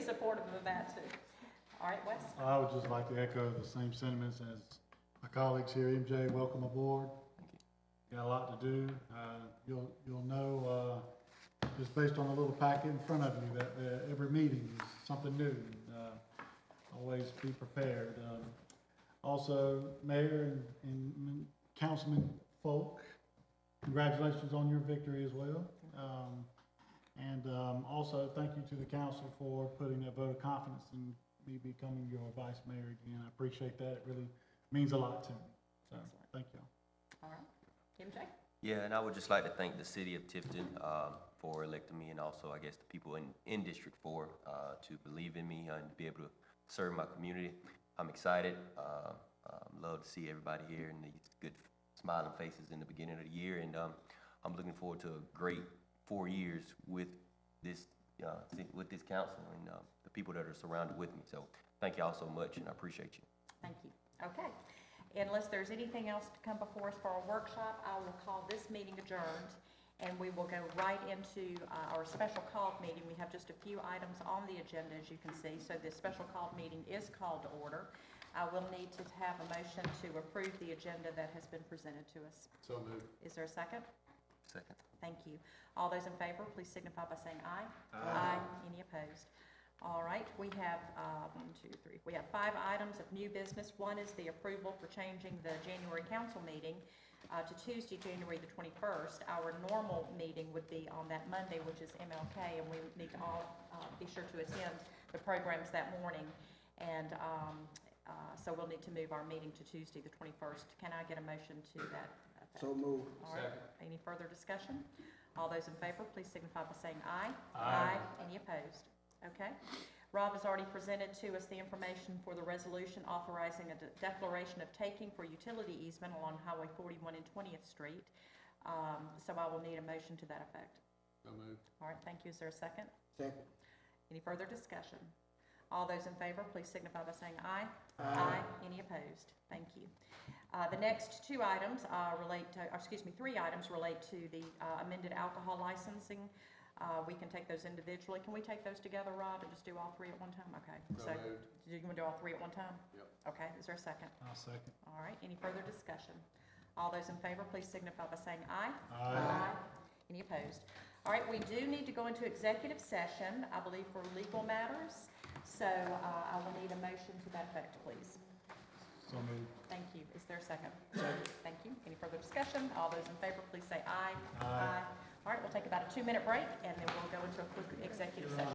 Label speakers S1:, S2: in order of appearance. S1: that too. All right, Wes?
S2: I would just like to echo the same sentiments as my colleagues here. MJ, welcome aboard. Got a lot to do. Uh, You'll, you'll know, uh, just based on the little packet in front of you, that uh, every meeting is something new. Uh, Always be prepared. Um, Also, Mayor and- and Councilman Folk, congratulations on your victory as well. Um, and um, also, thank you to the council for putting a vote of confidence in me becoming your vice mayor again. I appreciate that. It really means a lot to me. So, thank you.
S1: All right. MJ?
S3: Yeah, and I would just like to thank the city of Tifton um, for electing me and also, I guess, the people in, in District Four uh, to believe in me and be able to serve my community. I'm excited. uh, um, Love to see everybody here and these good smiling faces in the beginning of the year. And um, I'm looking forward to a great four years with this, uh, ci- with this council and uh, the people that are surrounded with me. So thank y'all so much and I appreciate you.
S1: Thank you. Okay. Unless there's anything else to come before us for our workshop, I will call this meeting adjourned, and we will go right into uh, our special called meeting. We have just a few items on the agenda, as you can see, so this special called meeting is called to order. I will need to have a motion to approve the agenda that has been presented to us.
S2: So moved.
S1: Is there a second?
S3: Second.
S1: Thank you. All those in favor, please signify by saying aye. Aye. Any opposed? All right, we have, uh, one, two, three, we have five items of new business. One is the approval for changing the January council meeting, uh, to Tuesday, January the twenty-first. Our normal meeting would be on that Monday, which is MLK, and we would need to all, uh, be sure to attend the programs that morning. And, um, uh, so we'll need to move our meeting to Tuesday, the twenty-first. Can I get a motion to that? effect?
S4: So moved.
S1: All right, any further discussion? All those in favor, please signify by saying aye. Aye. Any opposed? Okay. Rob has already presented to us the information for the resolution authorizing a de- declaration of taking for utility easement along Highway 41 and 20th Street. Um, So I will need a motion to that effect. All right, thank you. Is there a second?
S4: Second.
S1: Any further discussion? All those in favor, please signify by saying aye. Aye. Any opposed? Thank you. Uh, The next two items uh, relate to, or excuse me, three items relate to the uh, amended alcohol licensing. Uh, We can take those individually. Can we take those together, Rob, and just do all three at one time? Okay. So do you want to do all three at one time? Yep. Okay, is there a second?
S2: I'll second.
S1: All right, any further discussion? All those in favor, please signify by saying aye.
S2: Aye.
S1: Any opposed? All right, we do need to go into executive session, I believe, for legal matters. So uh, I will need a motion to that effect, please.
S2: So moved.
S1: Thank you. Is there a second? Thank you. Any further discussion? All those in favor, please say aye. Aye. All right, we'll take about a two-minute break, and then we'll go into a quick executive session.